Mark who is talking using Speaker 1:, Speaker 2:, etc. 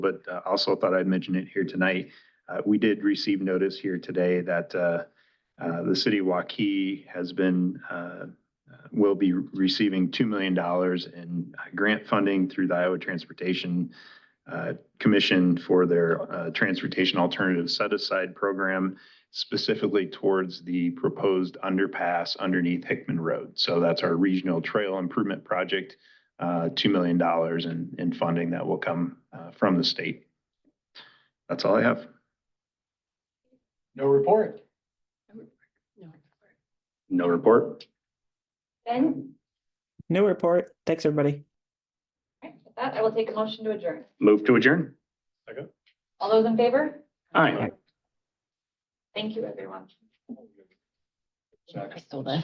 Speaker 1: but uh, also thought I'd mention it here tonight. Uh, we did receive notice here today that, uh, uh, the city of Waukee has been, uh, uh, will be receiving $2 million in uh, grant funding through the Iowa Transportation, uh, Commission for their, uh, Transportation Alternative Set Aside Program specifically towards the proposed underpass underneath Hickman Road. So that's our regional trail improvement project uh, $2 million in, in funding that will come uh, from the state. That's all I have.
Speaker 2: No report.
Speaker 1: No report.
Speaker 3: Ben,
Speaker 4: New report. Thanks, everybody.
Speaker 3: Alright, with that, I will take a motion to adjourn.
Speaker 1: Move to adjourn.
Speaker 3: All those in favor?
Speaker 1: Aye.
Speaker 3: Thank you, everyone.
Speaker 2: Second.
Speaker 5: I stole that.